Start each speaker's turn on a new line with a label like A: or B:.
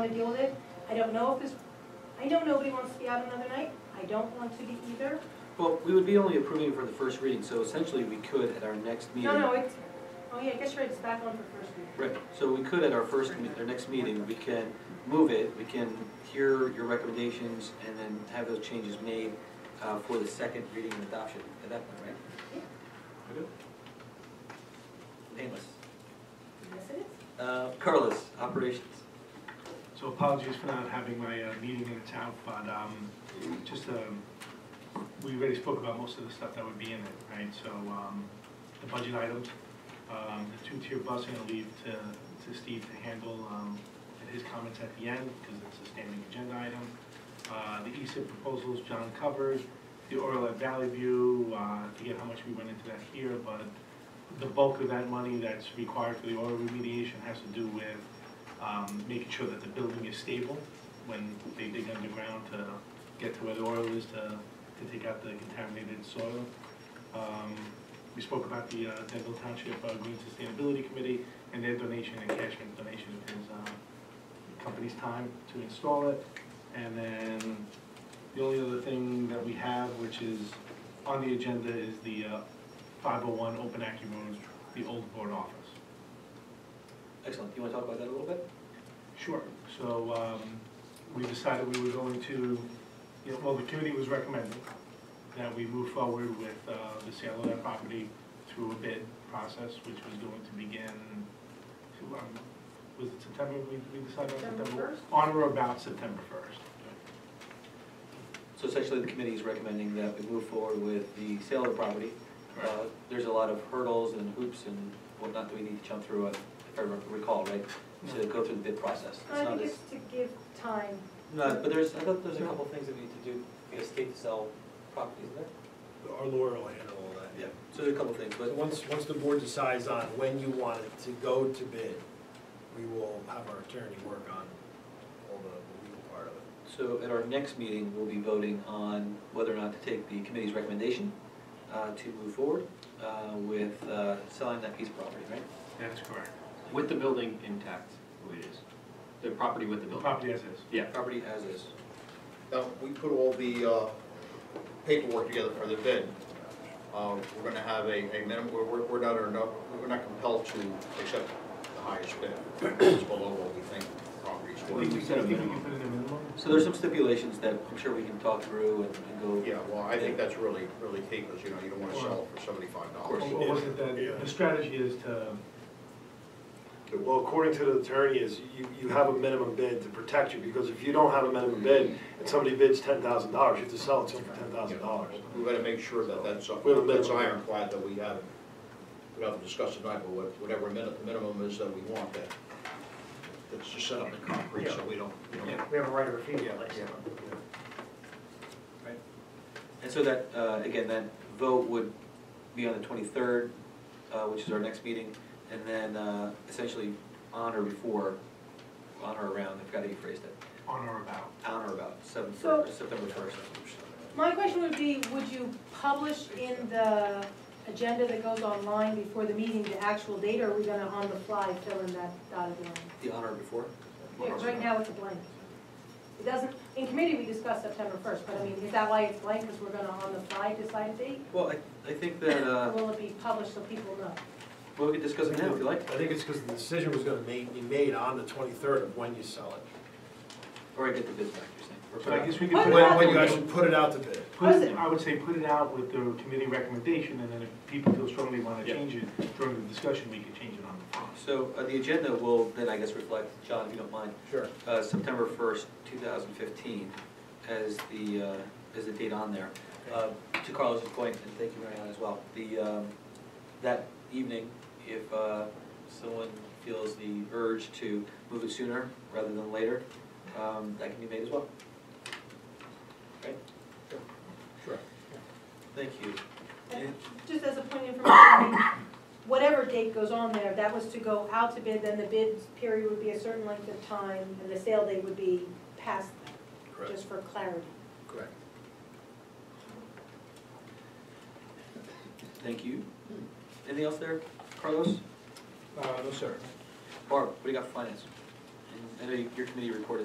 A: want to deal with it. I don't know if this, I know nobody wants to be out another night. I don't want to be either.
B: Well, we would be only approving for the first reading, so essentially we could at our next meeting.
A: No, no, it's, oh yeah, I guess you're right, it's back on for first reading.
B: Right, so we could at our first, me- our next meeting, we can move it, we can hear your recommendations and then have those changes made uh, for the second reading and adoption at that point, right? We're good? Nameless.
A: Yes, it is.
B: Uh, Carlos, operations.
C: So apologies for not having my uh, meeting in the town, but um, just, um, we already spoke about most of the stuff that would be in it, right? So um, the budget items, um, the two-tier bus, I'm gonna leave to to Steve to handle um, in his comments at the end, because it's a standing agenda item. Uh, The ESIP proposals, John covered, the oil at Valley View, uh, I forget how much we went into that here, but the bulk of that money that's required for the oil remediation has to do with um, making sure that the building is stable when they dig underground to get to where the oil is to, to take out the contaminated soil. Um, We spoke about the uh, Denville Township uh, Green Sustainability Committee and their donation and Cashman's donation of his uh, company's time to install it. And then the only other thing that we have, which is on the agenda, is the uh, 501 Open Acting Roads, the old board office.
B: Excellent, you want to talk about that a little bit?
C: Sure, so, um, we decided we were going to, you know, well, the committee was recommending that we move forward with, uh, the sale of that property through a bid process, which was going to begin, to, um, was it September, we, we decided on
A: September
C: September?
A: 1st?
C: On or about September first.
B: So essentially, the committee is recommending that we move forward with the sale of the property. Uh,
C: Correct.
B: There's a lot of hurdles and hoops and whatnot that we need to jump through, uh, if I recall, right? To go through the bid process. It's
A: I
B: not
A: think
B: as-
A: it's to give time.
B: No, but there's, I thought there's a couple things that we need to do, we have state to sell properties, isn't there?
D: Our lawyer will handle all that.
B: So there's a couple things,
D: But
B: but,
D: once, once the board decides on when you want it to go to bid, we will have our attorney work on all the legal part of it.
B: so at our next meeting, we'll be voting on whether or not to take the committee's recommendation uh, to move forward uh, with uh, selling that piece of property, right?
C: That's correct.
E: With the building intact, the way it is. The property with the
C: The
E: building.
C: property as is.
E: Yeah.
B: Property as is.
F: Now, we put all the uh, paperwork together for the bid. Uh, We're gonna have a, a minimum, we're, we're- we're not, eno- we're not compelled to accept the highest bid. It's below what we think the property's
C: I think we
F: worth.
C: said, I think we can put in a minimum.
B: So there's some stipulations that I'm sure we can talk through and and go.
F: Yeah, well, I think that's really, really key, because, you know, you don't wanna sell it for seventy-five dollars.
C: Or was it
G: Yeah.
C: that, the strategy is to,
G: Well, according to the attorney, is you, you have a minimum bid to protect you, because if you don't have a minimum bid, and somebody bids ten thousand dollars, you have to sell it to them for ten thousand dollars.
F: We gotta make sure that that's, uh,
G: We have a minimum.
F: that's ironclad, that we have, we haven't discussed tonight, but what- whatever min- minimum is that we want, that, that's just set up in concrete, so we don't, we don't.
C: Yeah.
H: We have a right of refusal,
F: Yeah,
H: basically.
F: yeah.
B: And so that, uh, again, that vote would be on the 23rd, uh, which is our next meeting, and then uh, essentially on or before, on or around, I forgot how you phrased it,
C: on or about.
B: on or about September
A: So-
B: 1st, September 1st.
A: My question would be, would you publish in the agenda that goes online before the meeting the actual date, or are we gonna on the fly fill in that dotted line?
B: The honor before?
A: Yeah, right now it's a blank. It doesn't, in committee, we discussed September first, but I mean, is that why it's blank, because we're gonna on the fly decide a date?
B: Well, I, I think that,
A: Or
B: uh,
A: will it be published so people know?
B: well, we could discuss it now if you like,
D: I think it's because the decision was gonna ma- be made on the twenty-third of when you sell it.
B: or I get the bids back, you're saying. or
C: So I guess we could.
A: What
C: put it
D: When,
C: out
D: when you
C: there.
D: actually put it out to bid.
C: Put it, I would say put it out with the committee recommendation, and then if people feel strongly want to
E: Yeah.
C: change it during the discussion, we can change it on the fly.
B: So uh, the agenda will then, I guess, reflect, John, if you don't mind,
D: Sure.
B: uh, September 1st, 2015, as the, uh, as the date on there. Uh, To Carlos's point, and thank you, Marianne, as well, the, um, that evening, if uh, someone feels the urge to move it sooner rather than later, um, that can be made as well. Right?
D: Sure.
B: Thank you.
A: And Just as a point of information, I mean, whatever date goes on there, that was to go out to bid, then the bid period would be a certain length of time, and the sale date would be past that,
D: Correct,
A: just for clarity.
D: correct.
B: Thank you. Anything else there, Carlos?
D: Uh, no, sir.
B: Barb, what do you got for finance? And I know your committee report